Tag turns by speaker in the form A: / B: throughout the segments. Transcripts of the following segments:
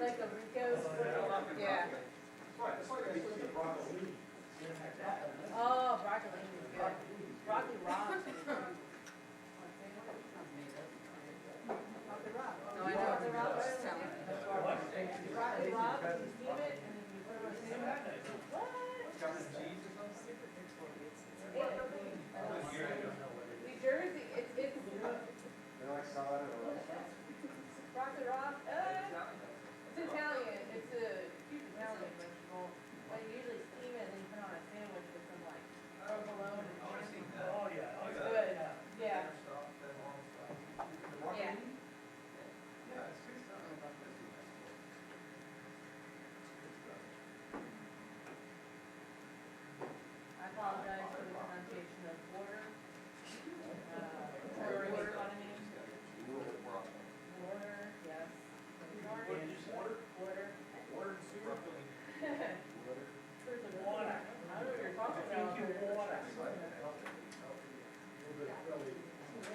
A: Like a Rico's, yeah,
B: Right, it's like I used to eat broccoli.
A: oh, broccoli is good, broccoli raw. Broccoli raw.
C: No, I know.
A: Broccoli raw.
C: Just tell me.
A: Broccoli raw, you steam it and then you put it on the sandwich. What?
B: Got the cheese or something?
A: Yeah. New Jersey, it's, it's
B: They like salad or
A: broccoli raw, uh, it's Italian, it's a huge Italian vegetable, but you usually steam it and then you put it on a sandwich with some like provolone and shrimp.
D: Oh, yeah, oh,
A: It's
D: yeah.
A: good, yeah.
B: broccoli.
A: Yeah.
B: Yeah, it's good stuff. I'm not busy. Good stuff.
A: I apologize for the pronunciation of water. Uh, Water, water, I mean, water, yes. Water, water.
B: Water and soup. Broccoli.
A: There's a water. I don't know what you're talking about.
D: Thank you, water.
B: It's like healthy, healthy.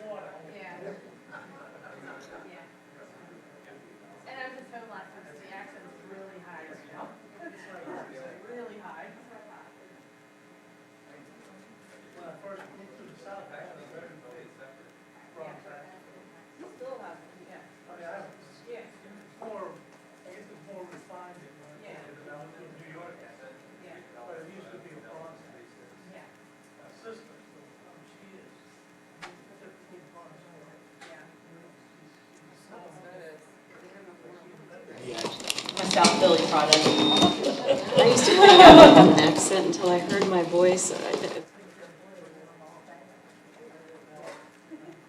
D: Water.
A: Yeah. Yeah. And I was just home last night, so the accent's really high right now. It's Really high.
D: When I first moved to the south, I had a very big
A: Yeah.
D: wrong side.
A: You still have, yeah.
D: I mean, I was
A: Yeah,
D: more, I guess it's more refined than when I was down in New York.
A: yeah,
D: But it used to be a bronx side.
A: yeah,
D: My sister, so, um, she is, she's a big bronx woman.
A: yeah.
D: She's so- she's-
E: My South Philly product. I used to think I didn't have an accent until I heard my voice. I did.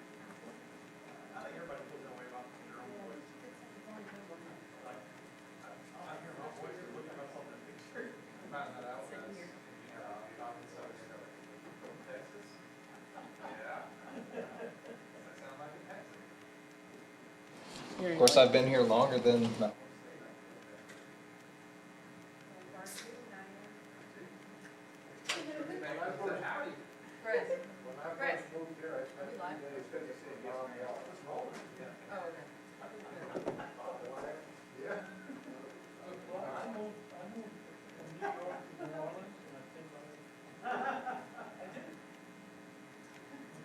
D: I think everybody feels that way about their own voice. Like, I I hear my voice, I look at myself in the picture.
B: Found that out when I was in, uh, down in Southern Texas. Yeah. Does that sound like a Texan?
F: Of course, I've been here longer than.
C: Chris,
B: When I
C: Right.
B: first moved here, I spent
C: We
B: two
C: live?
B: days fixing Ron L.
C: oh, okay.
B: Yeah.
D: Well, I moved, I moved from New York to New Orleans, and I think I. I did.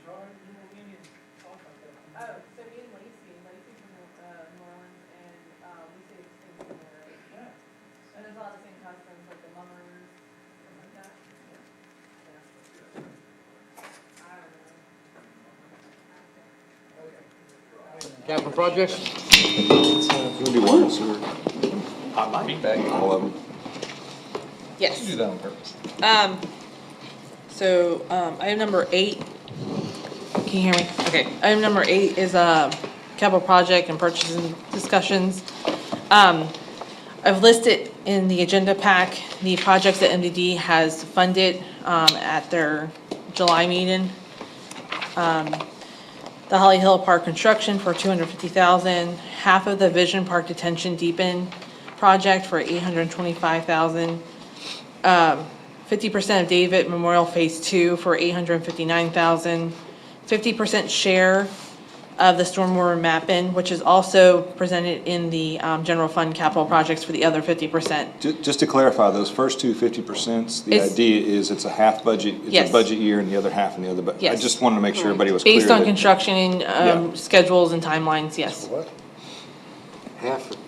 D: Majority New Orleans talk like that.
A: Oh, so me and Lacey, Lacey's from, uh, New Orleans, and, uh, we say the same thing, right?
D: Yeah.
A: And there's a lot of the same customs, like the mummers, stuff like that. Yeah. I don't know.
F: Capital projects?
G: It's gonna be one sewer. I might back all of them.
F: You do
E: Yes.
F: that on purpose.
E: Um, so, um, item number eight, can you hear me? Okay. Item number eight is, uh, capital project and purchasing discussions. Um, I've listed in the agenda pack the projects that MDD has funded, um, at their July meeting. Um, the Holly Hill Park construction for two hundred fifty thousand, half of the Vision Park Detention Deepen project for eight hundred twenty-five thousand, fifty percent of David Memorial Phase Two for eight hundred fifty-nine thousand, fifty percent share of the stormwater mapping, which is also presented in the, um, general fund capital projects for the other fifty percent.
G: Just to clarify, those first two 50%, the
E: It's-
G: idea is it's a half budget, it's
E: Yes.
G: a budget year and the other half in the other budget. I
E: Yes.
G: just wanted to make sure everybody was clear.
E: Based on
G: that-
E: construction,
G: Yeah.
E: um, schedules and timelines, yes.
G: What?
H: Half,